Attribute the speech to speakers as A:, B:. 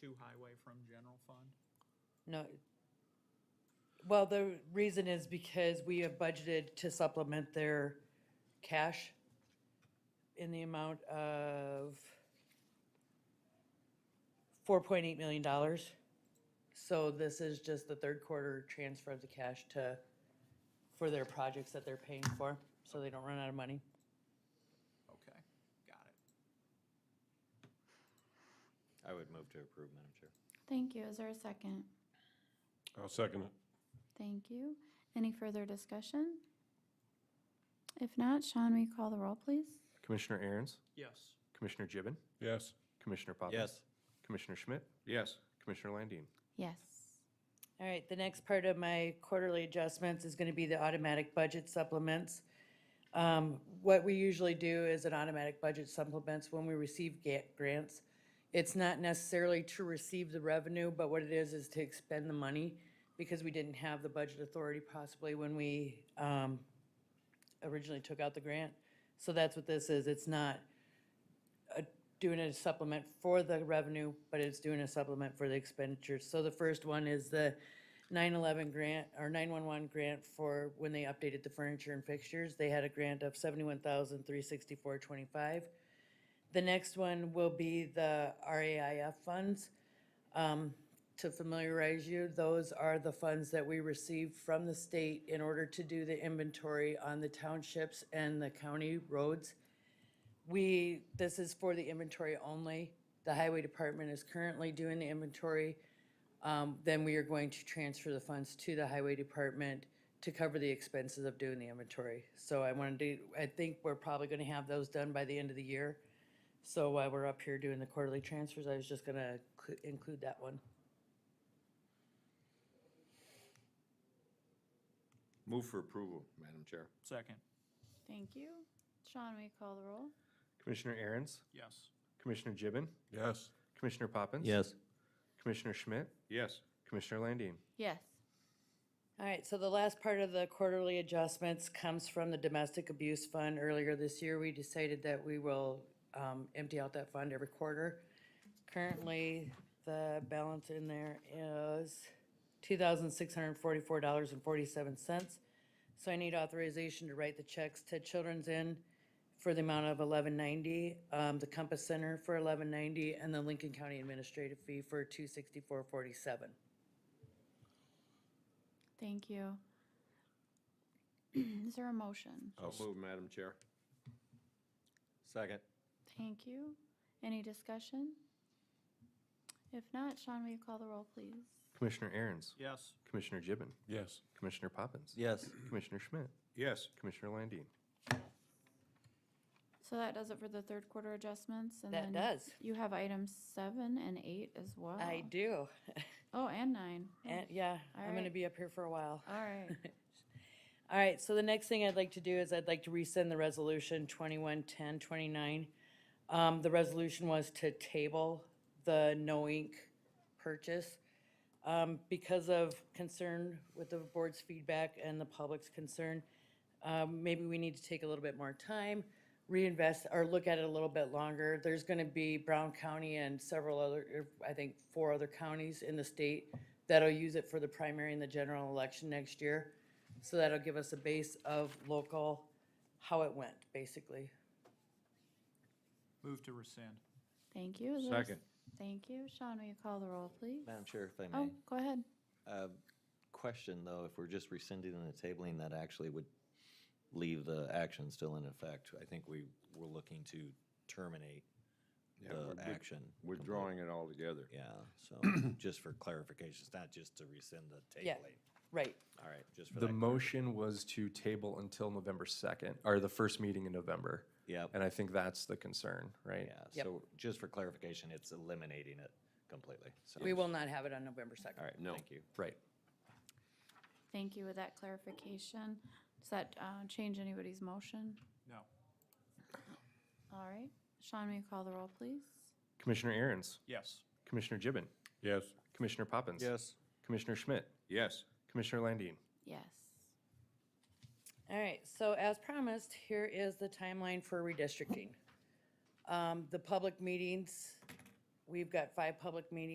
A: to highway from general fund?
B: No. Well, the reason is because we have budgeted to supplement their cash in the amount of four point eight million dollars. So this is just the third quarter transfer of the cash to, for their projects that they're paying for, so they don't run out of money.
A: Okay, got it.
C: I would move to approve, Madam Chair.
D: Thank you. Is there a second?
E: I'll second it.
D: Thank you. Any further discussion? If not, Sean, will you call the roll, please?
F: Commissioner Aaron's,
A: Yes,
F: Commissioner Gibbon,
E: Yes.
F: Commissioner Poppins. Commissioner Schmidt,
E: Yes.
F: Commissioner Landine.
D: Yes.
B: All right, the next part of my quarterly adjustments is gonna be the automatic budget supplements. Um, what we usually do is an automatic budget supplements when we receive ga- grants. It's not necessarily to receive the revenue, but what it is, is to expend the money because we didn't have the budget authority possibly when we, um, originally took out the grant. So that's what this is. It's not doing a supplement for the revenue, but it's doing a supplement for the expenditures. So the first one is the nine eleven grant, or nine one one grant for when they updated the furniture and fixtures. They had a grant of seventy-one thousand three sixty-four twenty-five. The next one will be the RAIF funds. Um, to familiarize you, those are the funds that we receive from the state in order to do the inventory on the townships and the county roads. We, this is for the inventory only. The highway department is currently doing the inventory. Um, then we are going to transfer the funds to the highway department to cover the expenses of doing the inventory. So I wanted to, I think we're probably gonna have those done by the end of the year. So while we're up here doing the quarterly transfers, I was just gonna clu- include that one.
C: Move for approval, Madam Chair.
A: second,
D: Thank you. Sean, will you call the roll?
F: Commissioner Aaron's,
A: yes,
F: Commissioner Gibbon,
E: Yes.
F: Commissioner Poppins. Commissioner Schmidt,
C: Yes.
F: Commissioner Landine.
D: Yes.
B: All right, so the last part of the quarterly adjustments comes from the Domestic Abuse Fund. Earlier this year, we decided that we will um, empty out that fund every quarter. Currently, the balance in there is $2,644.47. So I need authorization to write the checks to Children's Inn for the amount of 1190, um, the Compass Center for 1190, and the Lincoln County Administrative Fee for 264.47.
D: Thank you. Is there a motion?
C: I'll move, Madam Chair. Second.
D: Thank you. Any discussion? If not, Sean, will you call the roll, please?
F: Commissioner Aaron's,
A: yes,
F: Commissioner Gibbon,
E: Yes.
F: Commissioner Poppins.
C: Yes.
F: Commissioner Schmidt,
C: Yes.
F: Commissioner Landine.
D: So that does it for the third quarter adjustments, and
B: That
D: then
B: does.
D: You have items seven and eight as well.
B: I do.
D: Oh, and nine. Oh,
B: And, yeah, I'm gonna
D: Alright.
B: be up here for a while.
D: All right.
B: All right, so the next thing I'd like to do is I'd like to rescind the resolution twenty-one ten twenty-nine. Um, the resolution was to table the no ink purchase. Um, because of concern with the board's feedback and the public's concern, um, maybe we need to take a little bit more time, reinvest, or look at it a little bit longer. There's gonna be Brown County and several other, er, I think, four other counties in the state that'll use it for the primary and the general election next year. So that'll give us a base of local, how it went, basically.
A: move to rescind,
D: Thank you. Is there a- Thank you. Sean, will you call the roll, please?
C: Madam Chair, if I
D: Oh,
C: may.
D: go ahead.
C: Uh, Question, though, if we're just rescinding and tabling, that actually would leave the action still in effect. I think we were looking to terminate the action.
G: Withdrawing it altogether.
C: Yeah, so just for clarification, it's not just to rescind the
B: Yeah.
C: tabling.
B: Right,
C: All right, just for
F: The
C: that.
F: motion was to table until November 2nd, or the first meeting in November.
C: Yep.
F: And I think that's the concern, right?
C: Yeah,
B: Yep.
C: so just for clarification, it's eliminating it completely. So,
B: we will not have it on November
C: all
B: second.
C: right, thank you.
F: Right.
D: Thank you with that clarification. Does that uh, change anybody's motion?
A: no,
D: All right. Sean, will you call the roll, please?
F: Commissioner Aaron's,
A: yes,
F: Commissioner Gibbon,
E: Yes.
F: Commissioner Poppins. Commissioner Schmidt,
G: Yes.
F: Commissioner Landine.
D: Yes.
B: All right, so as promised, here is the timeline for redistricting. Um, the public meetings, we've got five public meetings